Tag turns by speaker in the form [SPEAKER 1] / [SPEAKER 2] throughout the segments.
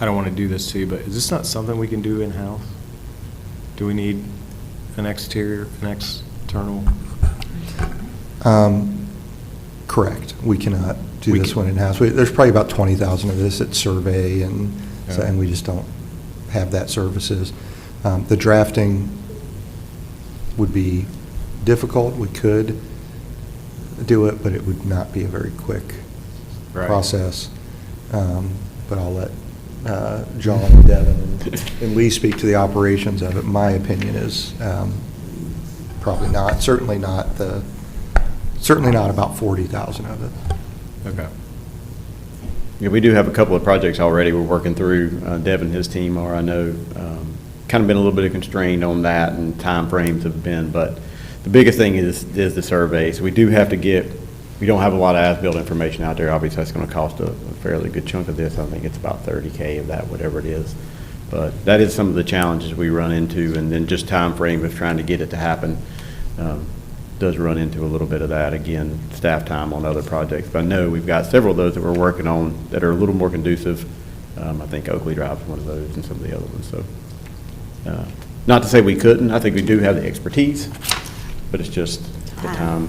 [SPEAKER 1] I don't want to do this to you, but is this not something we can do in-house? Do we need an exterior, an external?
[SPEAKER 2] Um, Correct. We cannot do
[SPEAKER 1] We
[SPEAKER 2] this
[SPEAKER 1] can-
[SPEAKER 2] one in-house. We- There's probably about 20,000 of this at survey, and, so-
[SPEAKER 1] Yeah.
[SPEAKER 2] and we just don't have that services. Um, The drafting would be difficult. We could do it, but it would not be a very quick
[SPEAKER 1] Right.
[SPEAKER 2] process. Um, But I'll let uh, John and Devin and Lee speak to the operations of it. My opinion is um, probably not, certainly not the, certainly not about 40,000 of it.
[SPEAKER 1] Okay.
[SPEAKER 3] Yeah, we do have a couple of projects already we're working through. Uh, Deb and his team are, I know, um, kind of been a little bit constrained on that and timeframes have been, but the biggest thing is, is the surveys. We do have to get, we don't have a lot of as-built information out there. Obviously, that's going to cost a a fairly good chunk of this. I think it's about 30K of that, whatever it is. But that is some of the challenges we run into, and then just timeframe of trying to get it to happen um, does run into a little bit of that. Again, staff time on other projects. But I know we've got several of those that we're working on that are a little more conducive. Um, I think Oakley Drive is one of those and some of the other ones, so. uh, Not to say we couldn't, I think we do have the expertise, but it's just the time.
[SPEAKER 4] Time.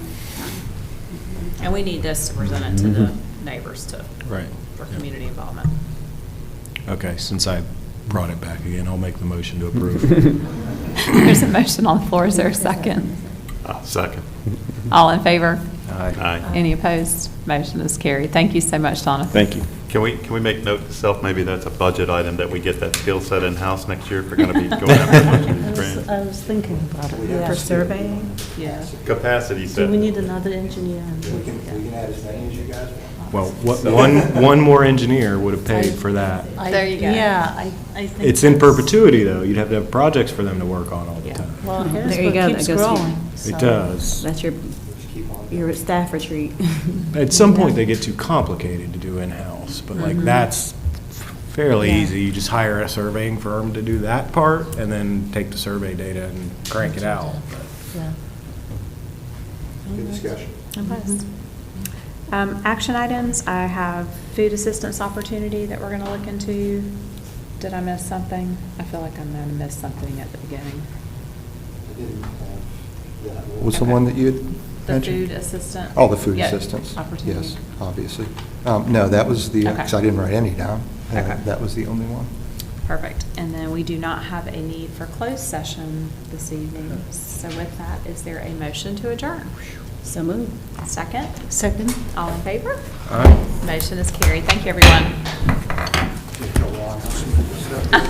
[SPEAKER 4] And we need this to present it to the neighbors to.
[SPEAKER 1] Right.
[SPEAKER 4] For
[SPEAKER 1] Yeah.
[SPEAKER 4] community involvement.
[SPEAKER 1] Okay, since I brought it back again, I'll make the motion to approve.
[SPEAKER 5] There's a motion on the floor, is there a second?
[SPEAKER 6] Ah, Second.
[SPEAKER 5] All in favor?
[SPEAKER 6] Aye.
[SPEAKER 5] Any opposed? Motion is carried. Thank you so much, Donna.
[SPEAKER 3] Thank you.
[SPEAKER 6] Can we, can we make note to self, maybe that's a budget item, that we get that skill set in-house next year if we're going to be going after one of
[SPEAKER 7] I
[SPEAKER 6] these
[SPEAKER 7] was,
[SPEAKER 6] grants?
[SPEAKER 7] I was thinking about it.
[SPEAKER 4] For surveying? Yeah.
[SPEAKER 6] Capacity set.
[SPEAKER 7] Do we need another engineer?
[SPEAKER 2] add as many as you guys want.
[SPEAKER 1] Well, what- one, one more engineer would have paid for that.
[SPEAKER 7] I-
[SPEAKER 5] There you go.
[SPEAKER 7] Yeah, I, I think.
[SPEAKER 1] It's in
[SPEAKER 7] that's-
[SPEAKER 1] perpetuity, though. You'd have to have projects for them to work on all the
[SPEAKER 4] Yeah.
[SPEAKER 1] time.
[SPEAKER 7] Well,
[SPEAKER 8] There you go,
[SPEAKER 7] Harrisburg
[SPEAKER 8] that
[SPEAKER 7] keeps
[SPEAKER 8] goes to-
[SPEAKER 7] growing. so-
[SPEAKER 1] It does.
[SPEAKER 8] That's your, your staff retreat.
[SPEAKER 1] At some point, they get too complicated to do in-house, but like, that's fairly
[SPEAKER 7] Yeah.
[SPEAKER 1] easy. You just hire a surveying firm to do that part, and then take the survey data and crank it out.
[SPEAKER 7] Yeah.
[SPEAKER 4] Mm-hmm.
[SPEAKER 2] Good discussion.
[SPEAKER 4] Um, action items, I have food assistance opportunity that we're gonna look into. Did I miss something? I feel like I'm gonna miss something at the beginning.
[SPEAKER 2] uh, Was the
[SPEAKER 4] Okay.
[SPEAKER 2] one that you had
[SPEAKER 4] The
[SPEAKER 2] mentioned?
[SPEAKER 4] food assistant.
[SPEAKER 2] Oh, the food
[SPEAKER 4] Yeah,
[SPEAKER 2] assistance.
[SPEAKER 4] Opportunity.
[SPEAKER 2] Yes, obviously. Um, No, that was the, because
[SPEAKER 4] Okay.
[SPEAKER 2] I didn't write any down. Uh,
[SPEAKER 4] Okay.
[SPEAKER 2] That was the only one.
[SPEAKER 4] Perfect. And then we do not have a need for closed session this evening. So with that, is there a motion to adjourn?
[SPEAKER 8] So moved.
[SPEAKER 4] Second,
[SPEAKER 7] Second?
[SPEAKER 4] all in favor?
[SPEAKER 1] All right.
[SPEAKER 4] Motion is carried. Thank you, everyone.